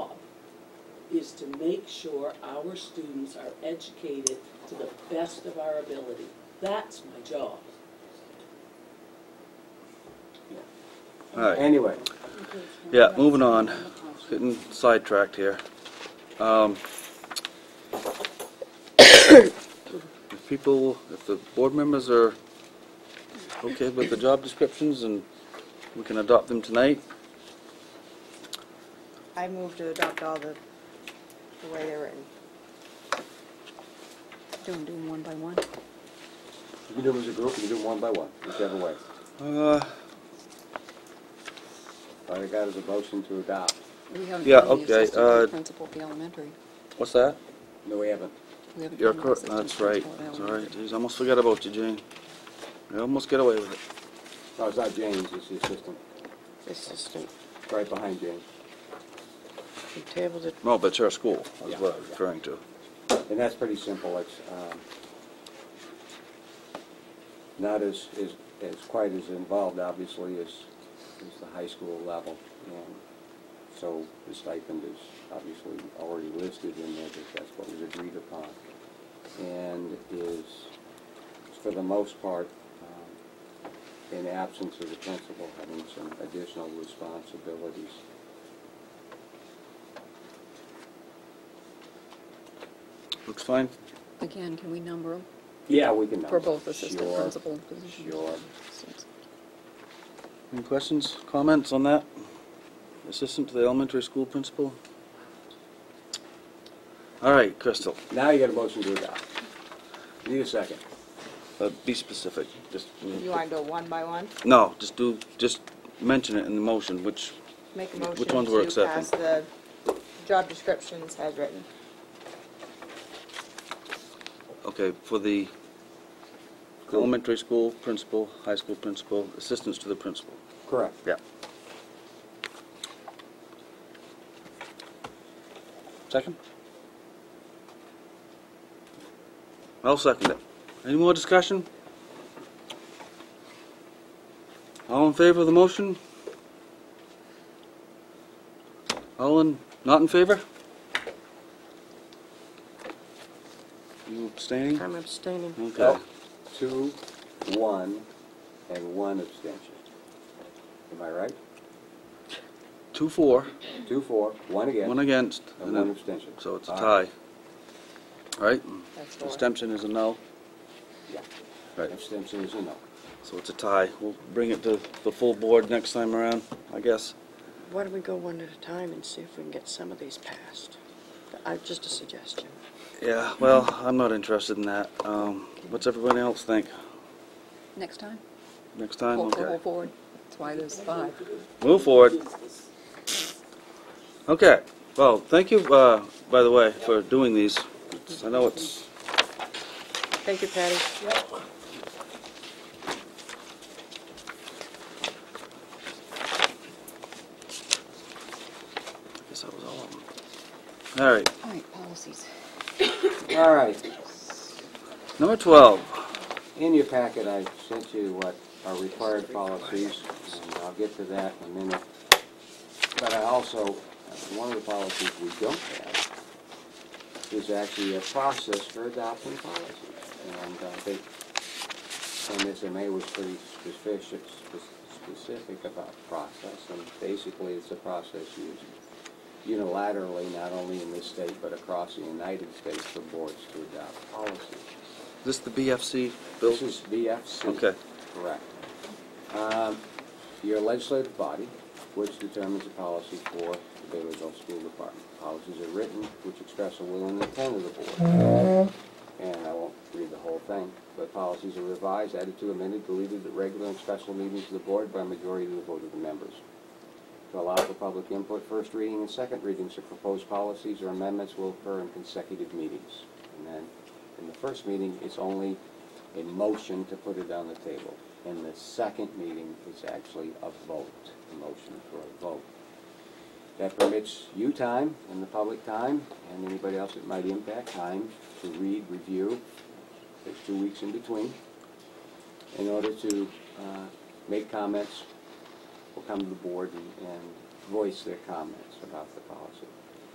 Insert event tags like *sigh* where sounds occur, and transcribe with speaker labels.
Speaker 1: is to make sure our students are educated to the best of our ability. That's my job.
Speaker 2: All right,
Speaker 3: Anyway,
Speaker 2: yeah, moving on, getting sidetracked here. Um, *coughs* If people, if the board members are okay with the job descriptions and we can adopt them tonight,
Speaker 4: I move to adopt all the, the way they're written.
Speaker 5: Don't do them one by one.
Speaker 3: you can do them as a group, you can do them one by one, whichever way.
Speaker 2: uh,
Speaker 3: All I got is a motion to adopt.
Speaker 5: We haven't
Speaker 2: Yeah,
Speaker 5: done the
Speaker 2: okay,
Speaker 5: assistant head
Speaker 2: uh,
Speaker 5: principal at the elementary.
Speaker 2: what's that?
Speaker 3: No, we haven't.
Speaker 5: We haven't
Speaker 2: You're
Speaker 5: done the
Speaker 2: correct,
Speaker 5: assistant
Speaker 2: that's right,
Speaker 5: principal at
Speaker 2: that's all
Speaker 5: elementary.
Speaker 2: right, geez, I almost forgot about you, Jane. I almost get away with it.
Speaker 3: No, it's not James, it's the assistant,
Speaker 4: Assistant,
Speaker 3: right behind James.
Speaker 4: we tabled it,
Speaker 2: No, but it's our school, is
Speaker 3: Yeah.
Speaker 2: what I was referring to.
Speaker 3: And that's pretty simple, it's, um, not as, as, as quite as involved, obviously, as, as the high school level. And so the stipend is obviously already listed in there, because that's what was agreed upon. And is, for the most part, um, in absence of the principal, having some additional responsibilities.
Speaker 2: Looks fine?
Speaker 5: Again, can we number them
Speaker 3: Yeah, we can.
Speaker 5: for
Speaker 3: number.
Speaker 5: both assistant
Speaker 3: Sure,
Speaker 5: principal positions?
Speaker 3: Sure.
Speaker 2: Any questions, comments on that? Assistant to the elementary school principal? All right, Crystal,
Speaker 3: Now you got a motion to adopt. Need a second.
Speaker 2: uh, be specific, just,
Speaker 4: you wanna go one by one?
Speaker 2: no, just do, just mention it in the motion, which,
Speaker 4: Make a
Speaker 2: Which
Speaker 4: motion
Speaker 2: ones we're
Speaker 4: to pass
Speaker 2: accepting?
Speaker 4: the job descriptions as written.
Speaker 2: okay, for the elementary school principal, high school principal, assistants to the principal.
Speaker 3: Correct.
Speaker 2: Yeah. Second? I'll second it. Any more discussion? All in favor of the motion? All in, not in favor? You abstaining?
Speaker 4: I'm abstaining.
Speaker 2: Okay.
Speaker 3: Well, Two, one, and one abstention. Am I right?
Speaker 2: Two, four,
Speaker 3: Two, four, one again.
Speaker 2: one against.
Speaker 3: And one abstention.
Speaker 2: So it's a
Speaker 3: All right.
Speaker 2: tie. All right?
Speaker 4: That's four.
Speaker 2: Abstention is a no.
Speaker 3: Yeah.
Speaker 2: Right.
Speaker 3: Abstention is a no.
Speaker 2: So it's a tie. We'll bring it to the full board next time around, I guess.
Speaker 6: Why don't we go one at a time and see if we can get some of these passed? I, just a suggestion.
Speaker 2: Yeah, well, I'm not interested in that. Um, what's everybody else think?
Speaker 5: Next time,
Speaker 2: Next time,
Speaker 5: hold the
Speaker 2: okay.
Speaker 5: whole board. That's why there's five.
Speaker 2: Move forward. Okay, well, thank you, uh, by the way, for doing these. It's- I know it's,
Speaker 4: Thank you, Patty.
Speaker 2: I guess that was all of them. All right,
Speaker 5: All right, policies.
Speaker 3: All right.
Speaker 2: number twelve.
Speaker 3: In your packet, I sent you what are required policies, and I'll get to that in a minute. But I also, uh, one of the policies we don't have is actually a process for adopting policies. And uh, I think MSMA was pretty specific, spe- specific about process, and basically it's a process used unilaterally, not only in this state, but across the United States for boards to adopt policies.
Speaker 2: Is this the BFC bill?
Speaker 3: This is BFC.
Speaker 2: Okay.
Speaker 3: Correct. Um, Your legislative body, which determines the policy for the Baylorville School Department. Policies are written, which express the will and intent of the board. And I won't read the whole thing, but policies are revised, added to, amended, deleted at regular and special meetings of the board by a majority of the vote of the members. To allow for public input, first reading and second readings of proposed policies or amendments will occur in consecutive meetings. And then, in the first meeting, it's only a motion to put it on the table. In the second meeting, it's actually a vote, a motion for a vote. That permits you time and the public time, and anybody else that might impact time to read, review. There's two weeks in between, in order to uh, make comments will come to the board and, and voice their comments about the policy.